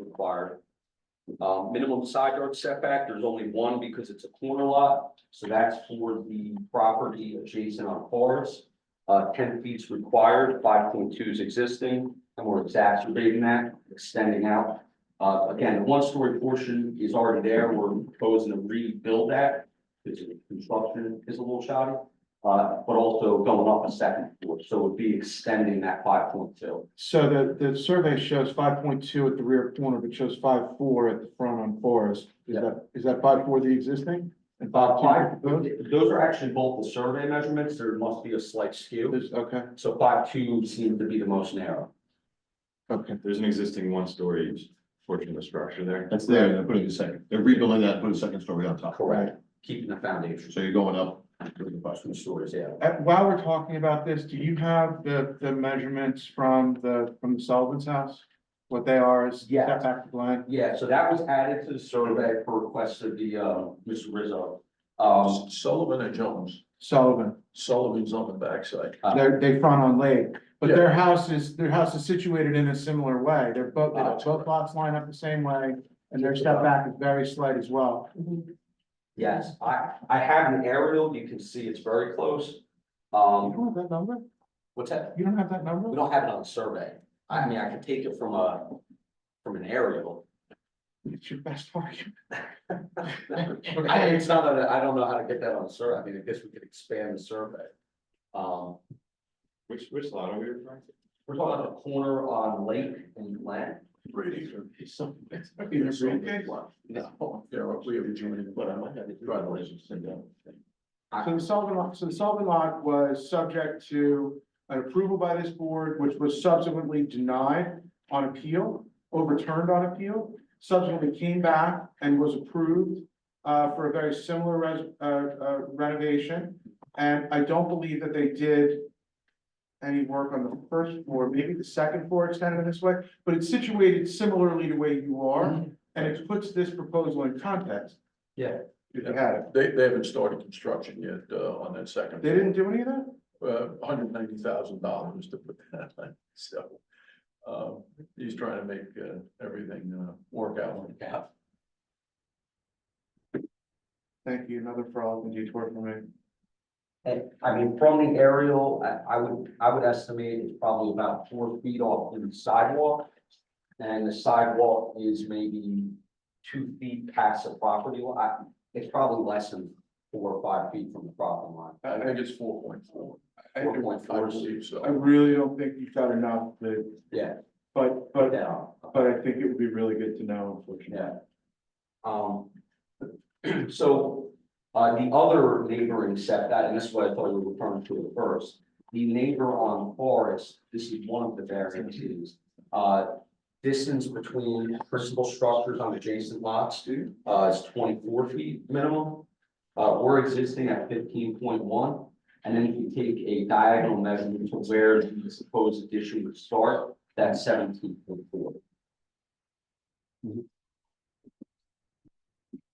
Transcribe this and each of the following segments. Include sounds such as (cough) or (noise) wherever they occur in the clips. required. Um, minimum side yard setback, there's only one because it's a corner lot, so that's for the property adjacent on Forest. Uh, ten feet's required, five point two is existing, and we're exacerbating that, extending out. Uh, again, the one-story portion is already there, we're proposing to rebuild that, because the construction is a little shoddy. Uh, but also going up a second floor, so it would be extending that five point two. So the, the survey shows five point two at the rear corner, but shows five four at the front on Forest. Is Yeah. that, is that five four the existing? And five Uh, two five, proposed? those are actually both the survey measurements, there must be a slight skew, There's- okay, so five two seems to be the most narrow. okay. There's an existing one-story portion of the structure there. That's there, they're putting the second, they're rebuilding that, put a second story on top. Correct. Keeping the foundation, So you're going up. to the bus. two stories, yeah. Uh, while we're talking about this, do you have the, the measurements from the, from the Sullivan's house? What they are is Yes. setback to line? Yeah, so that was added to the survey per request of the, uh, Mr. Rizzo. Um, Sullivan and Jones, Sullivan, Sullivan's on the backside. Uh, they're, they front on Lake, but Yeah. their house is, their house is situated in a similar way. They're both, Ah. both lots line up the same way, and their setback is very slight as well. yes, I, I have an aerial, you can see it's very close. Um, have that number? what's that? You don't have that number? We don't have it on the survey. I mean, I could take it from a, from an (laughs) aerial. It's your best argument. I, it's not that, I don't know how to get that on the survey. I mean, I guess we could expand the survey. Um, Which, which lot are we referring to? we're talking about a corner on Lake and Glen. Brady. No. Yeah, we have a joint, but I might have to drive license thing down. So the Sullivan lot, so the Sullivan lot was subject to an approval by this board, which was subsequently denied on appeal, overturned on appeal, subsequently came back and was approved uh, for a very similar res- uh, uh, renovation. And I don't believe that they did any work on the first floor, maybe the second floor extended this way, but it's situated similarly to where you are, and it puts this proposal in context. Yeah. If you had it. They, they haven't started construction yet, uh, on that second. They didn't do any of that? Uh, hundred ninety thousand dollars to put that (laughs) on, so. Um, he's trying to make, uh, everything, uh, work out like that. Thank you, another frog and detour for me. And I mean, from the aerial, I, I would, I would estimate it's probably about four feet off the sidewalk. And the sidewalk is maybe two feet past the property line. It's probably less than four or five feet from the property line. I think it's four point four. I- Four point I four. I believe so. really don't think you've got enough, but, Yeah, but, but, yeah, but I think it would be really good to know, unfortunately. yeah. Um, (clears throat) so, uh, the other neighboring setback, and this is what I thought you were referring to at first. The neighbor on Forest, this is one of the variances, uh, distance between principal structures on adjacent lots, uh, is twenty-four feet minimum. Uh, we're existing at fifteen point one, and then if you take a diagonal measurement to where the supposed addition would start, that's seventeen point four.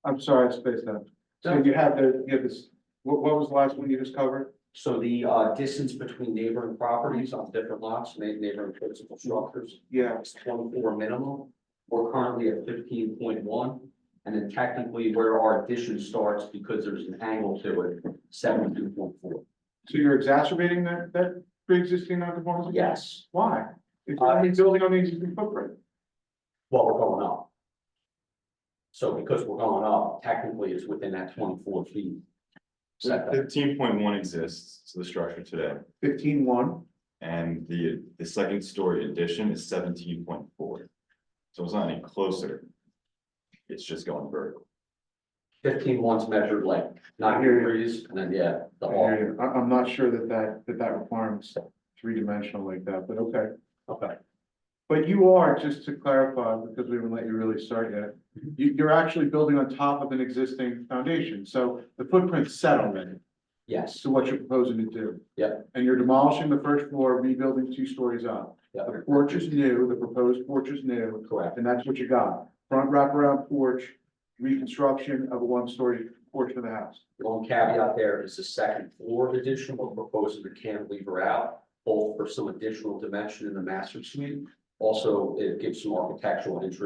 I'm sorry, I spaced out. So you have the, you have this, what, what was the last one you just covered? So the uh distance between neighboring properties on different lots, ma- neighboring principal structures, Yeah, is twenty-four minimum. We're currently at fifteen point one, and then technically where our addition starts, because there's an angle to it, seventy-two point four. so you're exacerbating that, that pre-existing non-conformity? Yes, Why? If you're already building on the existing footprint, well, we're going up. So because we're going up, technically it's within that twenty-four feet. setback. Fifteen point one exists to the structure today, fifteen one, and the, the second story addition is seventeen point four. So it's not any closer. It's just going vertical. Fifteen one's measured like nine I hear you. degrees, and then, yeah, the I wall. hear you. I, I'm not sure that that, that that requirements three-dimensional like that, but okay. Okay. But you are, just to clarify, because we haven't let you really start yet, you, you're actually building on top of an existing foundation, so the footprint's set already, Yes, to what you're proposing to do. Yep. And you're demolishing the first floor, rebuilding two stories up. Yep. The porch is new, the proposed porch is new, correct, and that's what you got, front wraparound porch, reconstruction of a one-story portion of the house. The One caveat there is the second floor addition, we're proposing to cantilever out, both for some additional dimension in the master suite. Also, it gives some architectural interest